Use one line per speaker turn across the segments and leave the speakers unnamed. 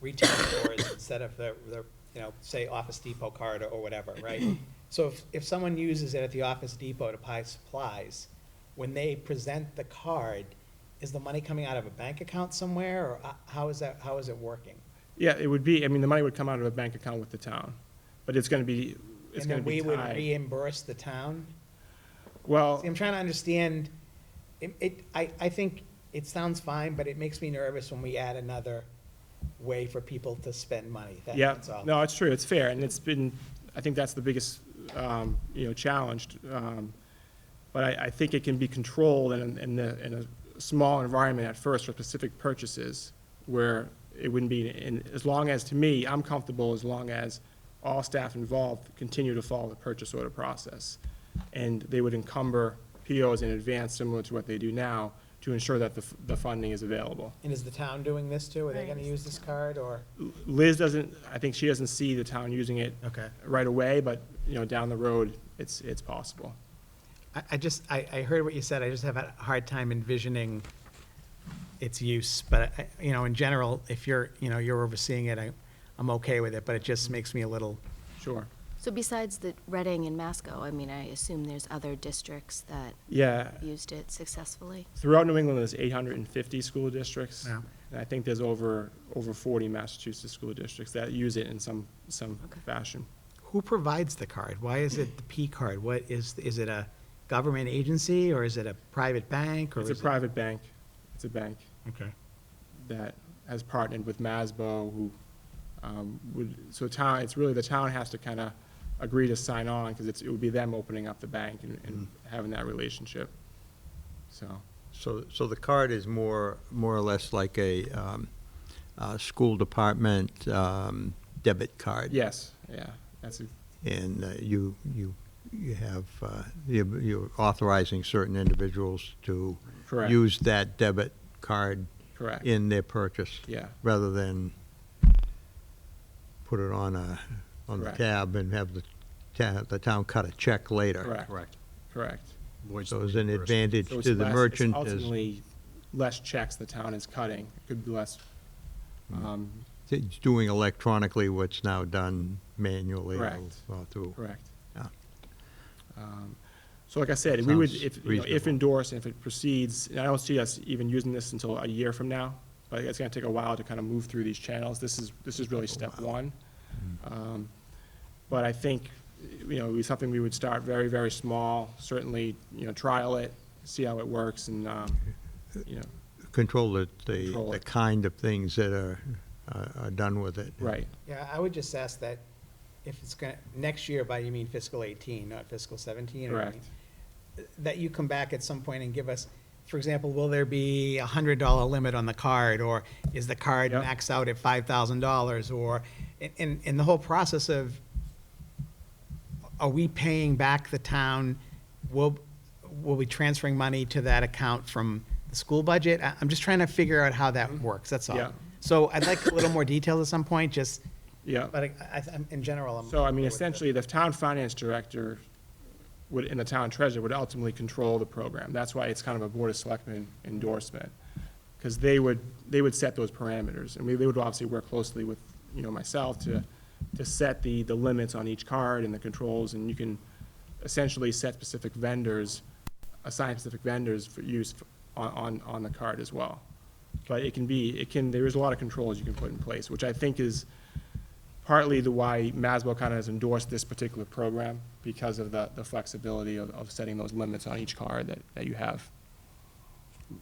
retail stores instead of the, the, you know, say Office Depot card or- or whatever, right? So if, if someone uses it at the Office Depot to buy supplies, when they present the card, is the money coming out of a bank account somewhere, or uh, how is that, how is it working?
Yeah, it would be, I mean, the money would come out of a bank account with the town, but it's gonna be,
And
it's gonna
then we
be
would
tied. Oh.
reimburse the town?
Well,
See, I'm trying to understand, it, it, I, I think it sounds fine, but it makes me nervous when we add another way for people to spend money, That-
yeah,
that's all.
no, it's true, it's fair, and it's been, I think that's the biggest, um, you know, challenge. um, But I, I think it can be controlled in, in the, in a small environment at first for specific purchases where it wouldn't be, and as long as, to me, I'm comfortable as long as all staff involved continue to follow the purchase order process. And they would encumber POs in advance, similar to what they do now, to ensure that the, f- the funding is available.
And is the town doing this too? Are they
Right,
gonna
it's
use
the
this card, or?
Liz doesn't, I think she doesn't see the town using it
Okay.
right away, but, you know, down the road, it's, it's possible.
I, I just, I, I heard what you said, I just have a hard time envisioning its use, but, I- you know, in general, if you're, you know, you're overseeing it, I, I'm okay with it, but it just makes me a little,
Sure.
So besides the Reading and Masco, I mean, I assume there's other districts that
Yeah,
used it successfully?
throughout New England, there's eight hundred and fifty school districts.
Yeah.
And I think there's over, over forty Massachusetts school districts that use it in some, some
Okay.
fashion.
who provides the card? Why is it the P card? What is, is it a government agency, or is it a private bank, or
It's a
is it?
private bank, it's a bank
Okay.
that has partnered with Masbo, who, um, would, so town, it's really, the town has to kinda agree to sign on, because it's, it would be them opening up the bank and, and
Mm-hmm.
having that relationship, so.
So, so the card is more, more or less like a um, uh, school department um, debit card?
Yes, yeah, that's, a-
And uh, you, you, you have, uh, you- you're authorizing certain individuals to
Correct.
use that debit card
correct,
in their purchase?
yeah,
Rather than put it on a, on the
Correct.
tab and have the town, the town cut a check later?
correct,
Correct.
correct.
Voids
So
the
it's an
reimbursement.
advantage
So it's
to the
less- it's
merchant as
Ultimately, less checks the town is cutting, It could be less,
Mm-hmm.
um,
It's doing electronically what's now done manually. or-
Correct.
or through.
correct.
Yeah.
Um, So like I said, we would,
Sounds
if, you know, if
reasonable.
endorsed, if it proceeds, and I don't see us even using this until a year from now, but it's gonna take a while to kind of move through these channels, this is, this is really step one.
Hmm.
Um, But I think, you know, it would be something we would start very, very small, certainly, you know, trial it, see how it works, and, um, you know,
Control the, the,
Control
the
it.
kind of things that are, are are done with it.
right,
Yeah, I would just ask that if it's gonna, next year by you mean fiscal eighteen, not fiscal seventeen? or
Correct.
anything, That you come back at some point and give us, for example, will there be a hundred dollar limit on the card? Or is the card
Yep.
maxed out at five thousand dollars? Or, and- and, and the whole process of, are we paying back the town? Will, will we transferring money to that account from the school budget? I- I'm just trying to figure out how that works, that's all.
Mm-hmm. Yeah.
So I'd like a little more detail at some point, just,
yeah.
but I, I, I'm- in general, I'm.
So,
okay
I mean,
um, with it.
essentially, the town finance director would, and the town treasurer would ultimately control the program. That's why it's kind of a board of selectmen endorsement, because they would, they would set those parameters. And we, they would obviously work closely with, you know, myself to, to set the, the limits on each card and the controls. And you can essentially set specific vendors, assign specific vendors for use on, on, on the card as well. But it can be, it can, there is a lot of controls you can put in place, which I think is, partly the why Maswell kind of has endorsed this particular program because of the, the flexibility of, of setting those limits on each card that, that you have.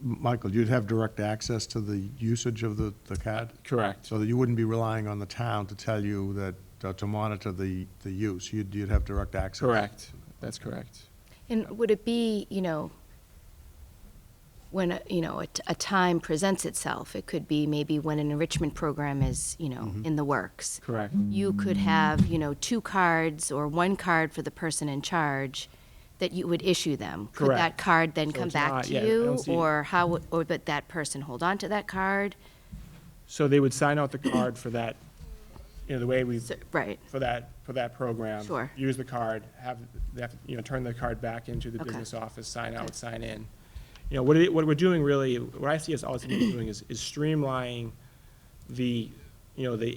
Michael, you'd have direct access to the usage of the, the card?
Correct.
So that you wouldn't be relying on the town to tell you that, uh, to monitor the, the use? You'd, you'd have direct access?
Correct. That's correct.
And would it be, you know, when, a- you know, a, t- a time presents itself? It could be maybe when an enrichment program is, you know,
Mm-hmm.
in the works.
Correct.
You could have, you know, two cards or one card for the person in charge that you would issue them. Could
Correct.
that card then
So
come
it's
back
not-
to
yeah, I
you?
don't see-
Or how, would- or would that person hold on to that card?
So they would sign out the card for that, you know, the way we,
So- Right,
for that, for that program.
Sure.
Use the card, have, they have, to, you know, turn the card back into the
Okay.
business office, sign
Okay.
out, sign in. You know, what it, what we're doing really, what I see us ultimately doing is, is streamlining the, you know, the